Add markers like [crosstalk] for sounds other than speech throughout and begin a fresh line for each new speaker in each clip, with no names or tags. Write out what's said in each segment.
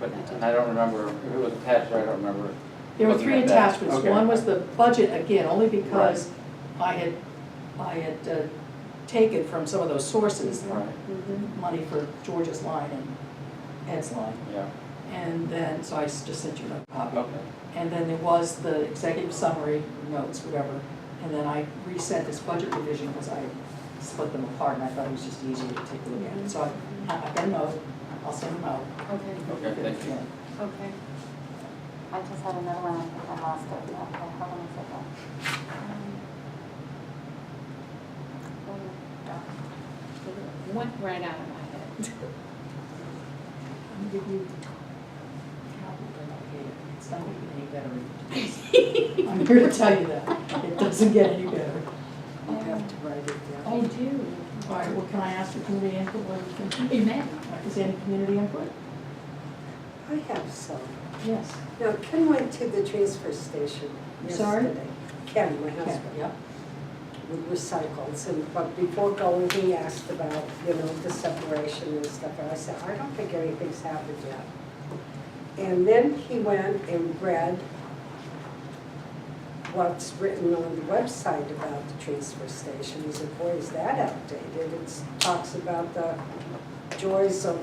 but I don't remember, if it was attached, or I don't remember.
There were
looking
three
at that.
attachments.
Okay.
One was the budget, again, only because I had, I had uh, taken from some of those sources,
Right,
Mm-hmm,
money for George's line and Ed's line.
yeah,
And then, so I s- just sent you a copy.
okay,
And then there was the executive summary notes, whatever. And then I resent this budget revision because I split them apart and I thought it was just easier to take a look at it. So I- I've got a note, I'll send them out.
Okay,
okay, thank you.
okay.
I just had another one, I think I lost it, okay, hold on a second.
Um, Went right out of my head.
I'll give you a copy, but I'll get it. It's not gonna get any better. I'm here to tell you that. It doesn't get any better. I'll have to write it down.
I Oh, do.
All right, well, can I ask for community input? What do you think?
Amen.
Is there any community input?
I have some.
Yes.
Now, Ken went to the transfer station
I'm sorry?
yesterday. Ken, my
Okay,
husband,
yep.
with recycles, and, but before going, he asked about, you know, the separation and stuff, and I said, I don't think anything's happened yet. And then he went and read what's written on the website about the transfer station, he said, boy, is that outdated, it talks about the joys of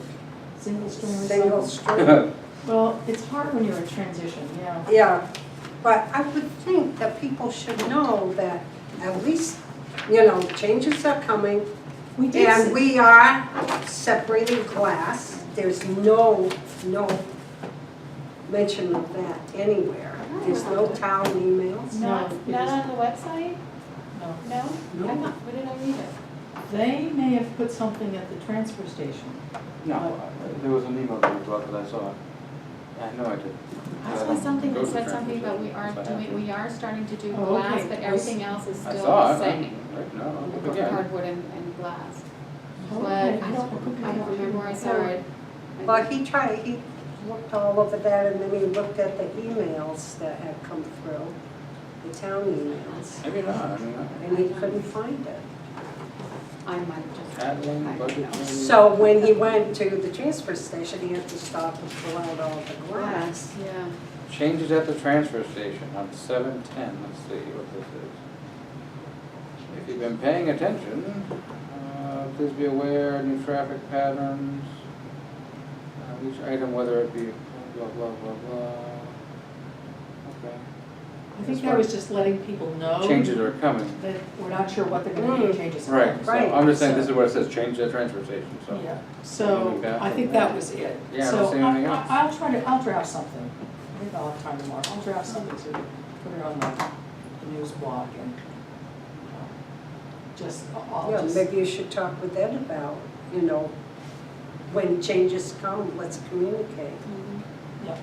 Single stream recycle.
single stream.
Well, it's hard when you're in transition, yeah.
Yeah, but I would think that people should know that at least, you know, changes are coming.
We did,
And
s-
we are separating glass. There's no, no mention of that anywhere. There's no town emails.
Not,
No, it
not
isn't.
on the website?
no.
No?
No.
I'm not, where did I read it?
They may have put something at the transfer station.
[laughs] No, I- there was an email that was up that I saw. I know I did.
I
don't
saw something
go
that
to
said
the
something about we
transfer
aren't
station,
doing, we are starting to do
Oh,
glass,
okay.
but everything else is
so I have- I
still
saw
the
it,
same.
I'm- right, no, I'll look again.
Cardboard and, and glass. But
Okay,
I don't, I don't remember where I saw
No.
it.
Well, he tried, he looked all over that and then he looked at the emails that had come through, the town emails,
Maybe not, I mean,
and he couldn't find it.
I might have just. I
Catalan,
don't
budget.
know.
meeting.
So when he went to the transfer station, he had to stop and pull out all the
Glass,
glass.
yeah.
Changes at the transfer station on seven ten, let's see what this is. If you've been paying attention, uh, please be aware, new traffic patterns. uh, Each item, whether it be blah, blah, blah, blah. Okay.
I think that was just letting people know.
Changes are coming.
That we're not sure what they're gonna do,
Mm.
changes. are
Right, so
Right,
I'm just saying, this
so-
is where it says change at transfer station, so.
Yeah, so I think that was it.
Yeah, I don't see anything else.
So I- I- I'll try to, I'll draft something. I think I'll have time tomorrow. I'll draft something to put it on the the news blog and um, just, I'll
Yeah,
just,
maybe you should talk with Ed about, you know, when changes come, let's communicate.
Mhm.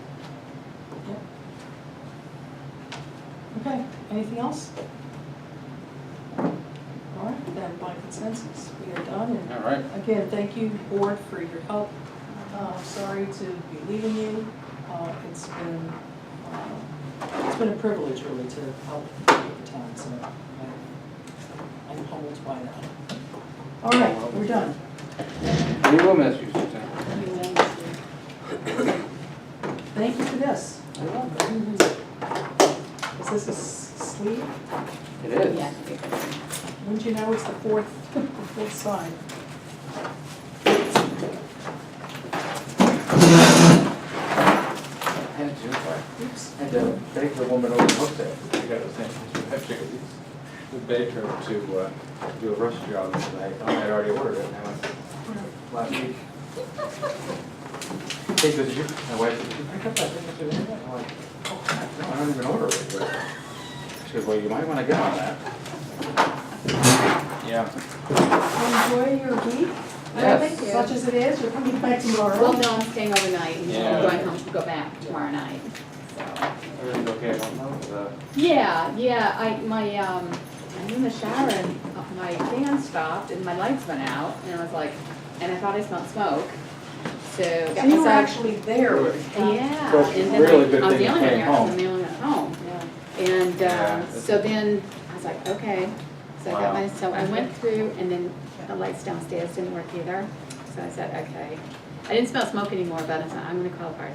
okay, anything else? All right, then by consensus, we are done. And
All right,
Again, thank you, board, for your help. Uh, Sorry to be leaving you. Uh, It's been, uh, it's been a privilege really to help with the town, so I- I'm humbled by that. All right, we're done.
we will miss you, Suzanne.
You will, Mr.
Thank you for this. Is this a s- sleeve?
It is.
Yeah, I think it was.
Wouldn't you know, it's the fourth, the fourth side.
I had to, I
Oops.
had to beg the woman over the hook there, I got those things, I have to go, we begged her to, uh, do a roast job, and I thought I'd already ordered it, and I went, last week. Hey, did you, my wife, did you pick up that thing at the window? I'm like, oh, crap, no, I don't even order it, but, she goes, well, you might wanna get on that. Yeah.
Enjoy your week,
Yes.
such as it is. You're coming back tomorrow.
Well, no, I'm staying overnight and
Yeah.
I'm going home to go back tomorrow night, so.
Everything's okay, I don't know, uh, the-
Yeah, yeah, I, my, um, I'm in the shower and my fan stopped and my lights went out and I was like, and I thought I smelled smoke, so.
So you were
so-
actually there. when it happened.
Yeah,
Well,
and then
really good
I, I was
thing
the
you
only one
came
here, I was the only one at home.
Yeah.
And,
Yeah.
uh, so then I was like, okay, so I got
Wow.
my, so I went through and then the lights downstairs didn't work either, so I said, okay. I didn't smell smoke anymore, but I thought, I'm gonna call the fire